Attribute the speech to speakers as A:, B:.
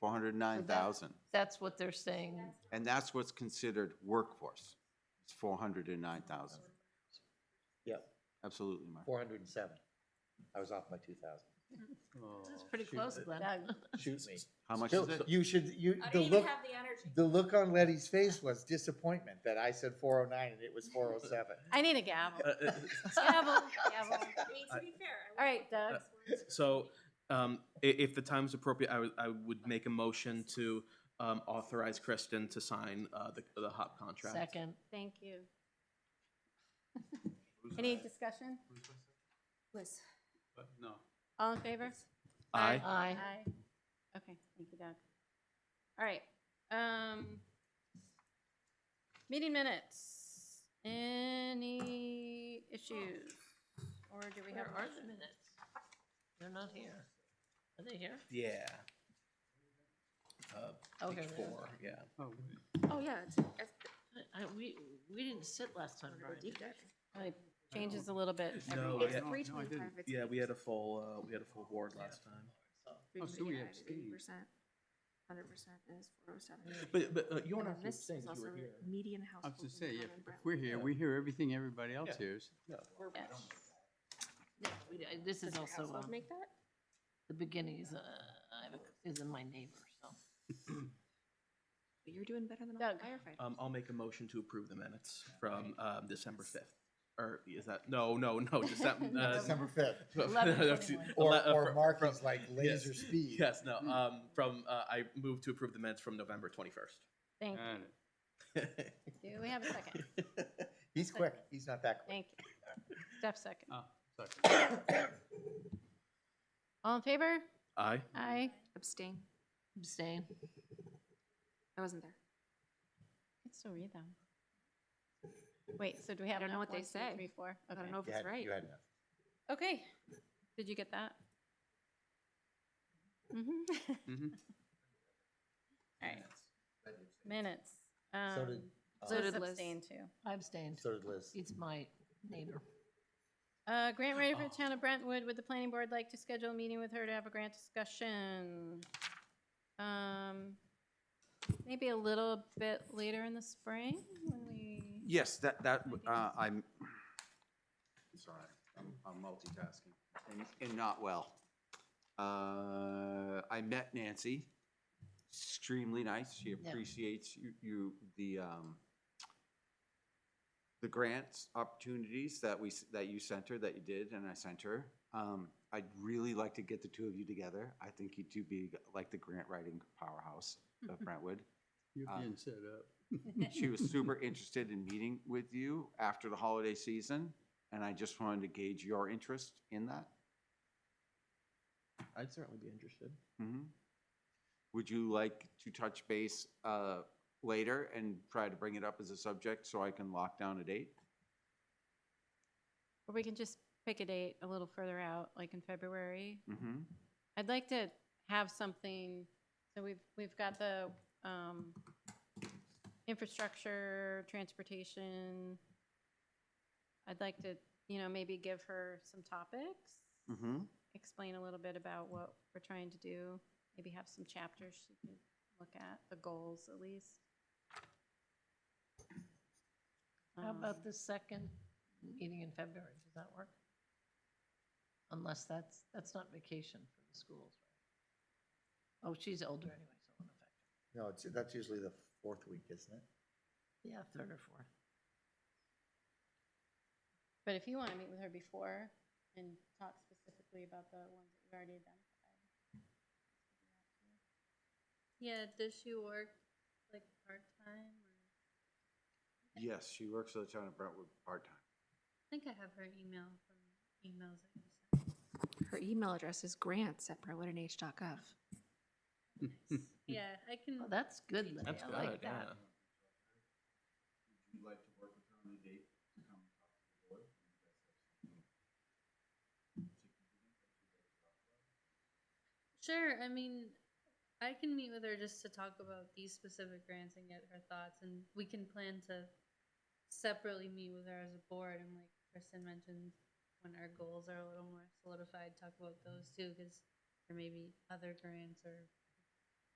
A: four hundred nine thousand.
B: That's what they're saying.
A: And that's what's considered workforce. It's four hundred and nine thousand.
C: Yep,
A: Absolutely, Mark.
C: four hundred and seven. I was off by two thousand.
D: Oh,
B: That's pretty close, Glenn.
C: Shoot me.
A: How much
C: Still,
A: is it?
C: You should, you,
E: I
C: the
E: don't even
C: look,
E: have the energy.
C: the look on Letty's face was disappointment that I said four oh nine and it was four oh seven.
F: I need a gavel.
D: Uh,
F: Gavel,
E: Gavel.
F: gavel.
E: I mean, to be fair.
F: All right, Doug.
D: So, um, i- if the time's appropriate, I would, I would make a motion to, um, authorize Kristen to sign, uh, the, the HOP contract.
B: Second.
F: Thank you. Any discussion? Liz.
A: No.
F: All in favor?
D: Aye.
B: Aye.
F: Aye. Okay, thank you, Doug. All right, um, meeting minutes. Any issues? Or do we have?
B: Where are the minutes? They're not here. Are they here?
D: Yeah. Uh,
B: Oh, here
D: page
B: they are.
D: four, yeah.
F: Oh, yeah, it's- it's-
B: I, I- we, we didn't sit last time, Brian, did we?
F: it changes a little bit. every
D: No,
F: week.
D: yeah.
F: It's three twenty-five. It's
D: Yeah, we had a full, uh, we had a full board last time.
G: Oh, so we
H: Eighty
G: abstained.
H: percent, hundred percent is four oh seven.
D: But, but uh, you don't
H: And
D: have
H: then
D: to
H: this
D: abstain
H: is
D: 'cause you
H: also
D: were here.
G: I
H: Median household
G: was to say,
H: income
G: if
H: in
G: if
H: Brown-
G: we're here, we hear everything everybody else
D: Yeah.
G: hears.
B: No, we- I- This is
H: Does the
B: also,
H: household
B: um,
H: Make that?
B: the beginning is, uh, I have a- is in my neighbor, so.
H: But You're doing better than all
F: Doug.
H: firefighters.
D: Um, I'll make a motion to approve the minutes from, um, December fifth. Or is that, no, no, no, December, uh,
C: December fifth. Or,
D: Ele- uh,
C: or
D: fr-
C: Mark
D: from-
C: is like laser speed.
D: Yes, no, um, from, uh, I moved to approve the minutes from November twenty-first.
F: Thank
G: Got it.
F: you. Do we have a second?
C: He's quick, he's not that quick.
F: Thank you. Steph, second.
G: Oh, sorry.
F: All in favor?
D: Aye.
F: Aye.
H: Abstain.
B: Abstain.
H: I wasn't there.
F: I can still read them. Wait, so do we have?
H: don't know
F: enough?
H: what they
F: One, two,
H: say.
F: three, four?
H: I
F: Okay.
H: don't know if
C: You
H: it's
C: had-
H: right.
C: You had enough.
F: Okay. Did you get that? Mhm.
D: Mm-hmm.
G: Mhm.
F: All right, minutes.
C: So did,
F: Um,
C: uh,
H: so
F: Liz
H: did Liz.
F: abstained too.
B: I abstained.
C: so did Liz.
B: It's my neighbor.
F: Uh, grant writer for
D: Oh.
F: the town of Brentwood, would the planning board like to schedule a meeting with her to have a grant discussion? Um, maybe a little bit later in the spring when we,
A: Yes, that, that, uh, I'm, sorry, I'm- I'm multitasking and, and not well. Uh, I met Nancy, extremely nice. She
B: Yeah.
A: appreciates you, you, the, um, the grants opportunities that we, s- that you sent her, that you did, and I sent her. Um, I'd really like to get the two of you together. I think you two be like the grant writing powerhouse of Brentwood.
G: You're
A: Uh,
G: being set up.
A: She was super interested in meeting with you after the holiday season, and I just wanted to gauge your interest in that.
D: I'd certainly be interested.
A: Mhm. Would you like to touch base uh, later and try to bring it up as a subject so I can lock down a date?
F: or we can just pick a date a little further out, like in February.
A: Mhm.
F: I'd like to have something, so we've, we've got the, um, infrastructure, transportation. I'd like to, you know, maybe give her some topics,
A: Mhm.
F: explain a little bit about what we're trying to do, maybe have some chapters she could look at, the goals at least.
B: How about
F: Um,
B: the second meeting in February? Does that work? Unless that's, that's not vacation for the schools, right? Oh, she's older anyway, so it won't affect her.
C: No, it's, that's usually the fourth week, isn't it?
B: Yeah, third or fourth.
F: But if you want to meet with her before and talk specifically about the ones that you already identified. Yeah, does she work like part-time? or-
A: Yes, she works for the town of Brentwood part-time.
F: I think I have her email from emails. that you sent.
H: Her email address is grants@brentwoodnh.gov.
F: Yeah, I can.
B: Oh, that's good, Lenny.
D: That's
B: I like
D: good,
B: that.
D: yeah.
A: Would you like to work with her on a date to come talk to the board?
I: Sure. I mean, I can meet with her just to talk about these specific grants and get her thoughts, and we can plan to separately meet with her as a board. And like Kristen mentioned, when our goals are a little more solidified, talk about those too, because there may be other grants or